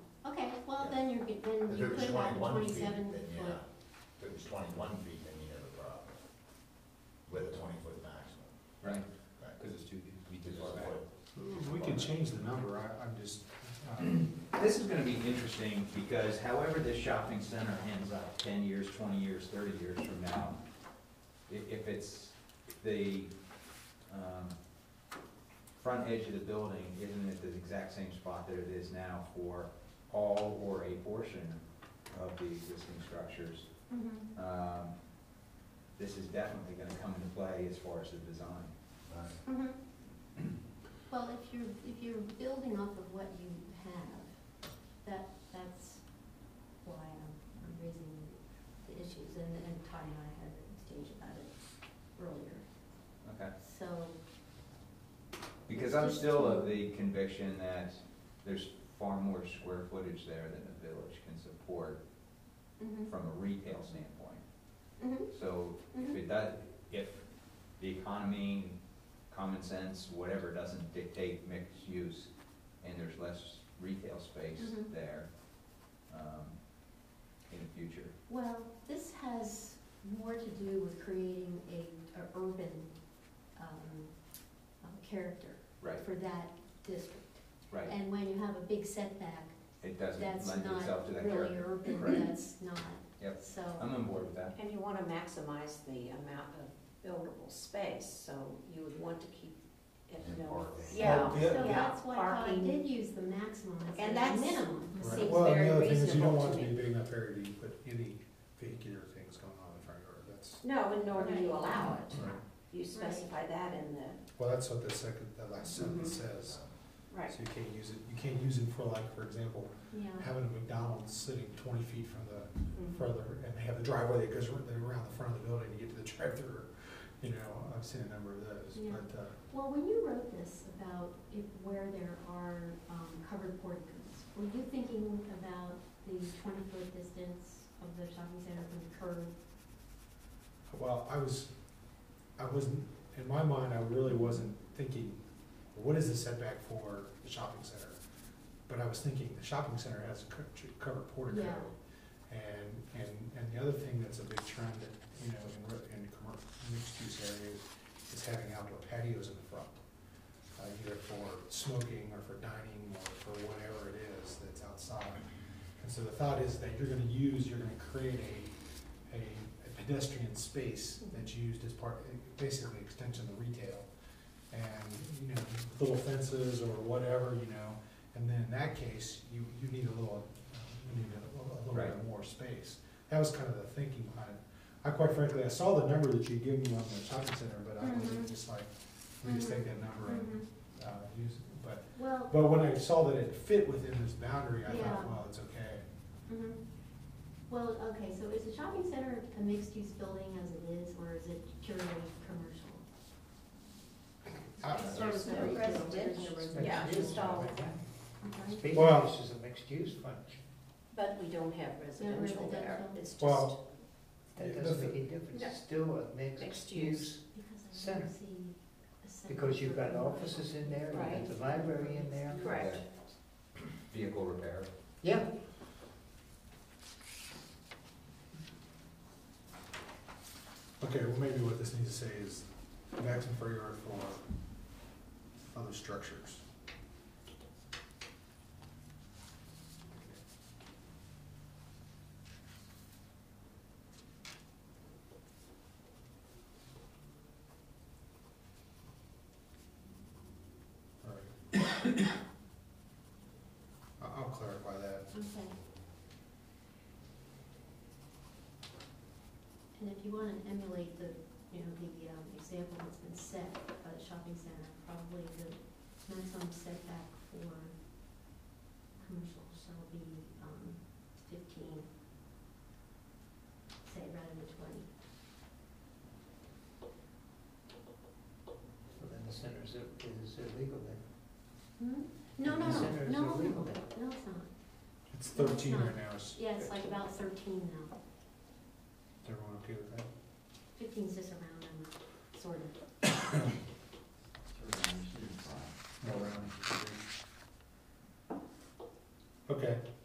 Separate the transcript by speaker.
Speaker 1: when
Speaker 2: If
Speaker 1: you
Speaker 2: it was
Speaker 1: put about the
Speaker 2: twenty-one feet,
Speaker 1: twenty-seven
Speaker 2: then yeah,
Speaker 1: foot,
Speaker 2: if it was twenty-one feet, then you'd have a problem with a twenty-foot maximum,
Speaker 3: Right,
Speaker 2: right?
Speaker 3: because it's too, we
Speaker 2: Because
Speaker 3: did
Speaker 2: it's
Speaker 3: this back.
Speaker 2: foot.
Speaker 4: We can change the number, I, I'm just, um,
Speaker 3: This is gonna be interesting, because however this shopping center ends up, ten years, twenty years, thirty years from now, i- if it's, if the, um, front edge of the building isn't at the exact same spot that it is now for all or a portion of the existing structures,
Speaker 1: Mhm.
Speaker 3: um, this is definitely gonna come into play as far as the design.
Speaker 2: Right.
Speaker 1: Mhm. Well, if you're, if you're building off of what you have, that, that's why I'm I'm raising the issues, and, and Todd and I had an exchange about it earlier,
Speaker 3: Okay.
Speaker 1: so.
Speaker 3: Because I'm still of the conviction that there's far more square footage there than the village can support
Speaker 1: Mhm.
Speaker 3: from a retail standpoint.
Speaker 1: Mhm.
Speaker 3: So if it does, if the economy, common sense, whatever, doesn't dictate mixed use and there's less retail space
Speaker 1: Mhm.
Speaker 3: there, um, in the future.
Speaker 1: Well, this has more to do with creating a, a urban, um, uh, character
Speaker 3: Right,
Speaker 1: for that district.
Speaker 3: right.
Speaker 1: And when you have a big setback,
Speaker 3: It doesn't
Speaker 1: that's
Speaker 3: lend itself
Speaker 1: not
Speaker 3: to that
Speaker 1: really
Speaker 3: character.
Speaker 1: urban,
Speaker 3: Right.
Speaker 1: that's not,
Speaker 3: Yep, Um,
Speaker 1: so.
Speaker 3: I'm on board with that.
Speaker 5: And you want to maximize the amount of buildable space, so you would want to keep it
Speaker 2: And
Speaker 5: no.
Speaker 2: parking.
Speaker 5: Yeah.
Speaker 4: Well,
Speaker 1: So
Speaker 5: yeah,
Speaker 1: that's why Todd
Speaker 5: parking.
Speaker 1: did use the maximum
Speaker 5: And
Speaker 1: as
Speaker 5: that's-
Speaker 1: the minimum.
Speaker 5: Right.
Speaker 4: right.
Speaker 5: Seems
Speaker 4: well, and
Speaker 5: very
Speaker 4: the other thing is you don't
Speaker 5: reasonable
Speaker 4: want
Speaker 5: to
Speaker 4: to be
Speaker 5: me.
Speaker 4: big enough area to put any vehicular things going on in the front yard, that's,
Speaker 5: No, and nor do you
Speaker 1: Right.
Speaker 5: allow it.
Speaker 4: right.
Speaker 5: You specify that in the,
Speaker 4: Well, that's what the second, the last sentence says,
Speaker 5: Mm-hmm. right,
Speaker 4: so
Speaker 5: Mm-hmm.
Speaker 4: you can't use it, you can't use it for like, for example,
Speaker 1: Yeah,
Speaker 4: having a McDonald's sitting twenty feet from the,
Speaker 5: Mhm.
Speaker 4: further, and have the driveway that goes ar- around the front of the building to get to the drive-through. You know, I've seen a number of those,
Speaker 1: Yeah.
Speaker 4: but, uh,
Speaker 1: well, when you wrote this about if, where there are, um, covered porticos, were you thinking about the twenty-foot distance of the shopping center from the curb?
Speaker 4: Well, I was, I wasn't, in my mind, I really wasn't thinking, what is the setback for the shopping center? But I was thinking, the shopping center has a co- ch- covered portico.
Speaker 1: Yeah.
Speaker 4: And, and, and the other thing that's a big trend, you know, in, re- in commercial, mixed-use areas, is having outdoor patios in the front. Uh, either for smoking or for dining or for whatever it is that's outside. And so the thought is that you're gonna use, you're gonna create a a a pedestrian space that's used as part, basically extension of retail. And, you know, little fences or whatever, you know, and then in that case, you, you need a little, uh, you need a little- a little bit
Speaker 3: Right.
Speaker 4: more space. That was kind of the thinking behind it. I quite frankly, I saw the number that you gave me on the shopping center, but I
Speaker 1: Mhm.
Speaker 4: was just like, we just take that number and,
Speaker 1: Mhm.
Speaker 5: Mm-hmm.
Speaker 4: uh, use, it. but,
Speaker 1: Well,
Speaker 4: but when I saw that it fit within this boundary, I
Speaker 1: Yeah.
Speaker 4: thought, well, it's okay.
Speaker 1: mhm. well, okay, so is the shopping center a mixed-use building as it is, or is it purely commercial?
Speaker 4: I-
Speaker 5: It's sort of
Speaker 1: Sorry, it's
Speaker 5: the residential,
Speaker 1: residential.
Speaker 5: yeah, just all of that.
Speaker 1: I'm sorry?
Speaker 6: Speed
Speaker 4: Well-
Speaker 6: use is a mixed use function.
Speaker 5: But we don't have residential there.
Speaker 1: residential.
Speaker 5: It's just,
Speaker 4: Well,
Speaker 6: That
Speaker 4: Yeah,
Speaker 6: doesn't
Speaker 4: that's
Speaker 6: make any difference.
Speaker 5: No.
Speaker 6: It's still a mixed
Speaker 5: Mixed
Speaker 6: use.
Speaker 1: Because I
Speaker 6: Center.
Speaker 1: don't see a center.
Speaker 6: Because you've got
Speaker 1: for-
Speaker 6: offices in there,
Speaker 5: Right.
Speaker 6: you've got the library in there.
Speaker 5: correct.
Speaker 3: Vehicle repair.
Speaker 6: Yeah,
Speaker 4: Okay, well, maybe what this needs to say is maximum front yard for other structures. All right. I- I'll clarify that.
Speaker 1: Okay. And if you wanna emulate the, you know, the, um, example that's been set by the shopping center, probably the maximum setback for commercial shall be, um, fifteen, say rather than twenty.
Speaker 6: well, then the center is is illegal then.
Speaker 1: Hmm? No, no,
Speaker 6: The center
Speaker 1: no, no,
Speaker 6: is illegal
Speaker 1: no,
Speaker 6: then.
Speaker 1: no, it's not.
Speaker 4: It's
Speaker 1: No, it's
Speaker 4: thirteen
Speaker 1: not.
Speaker 4: right now, is
Speaker 1: Yeah, it's like about thirteen now.
Speaker 4: everyone okay with that?
Speaker 1: Fifteen's just around number, sort of.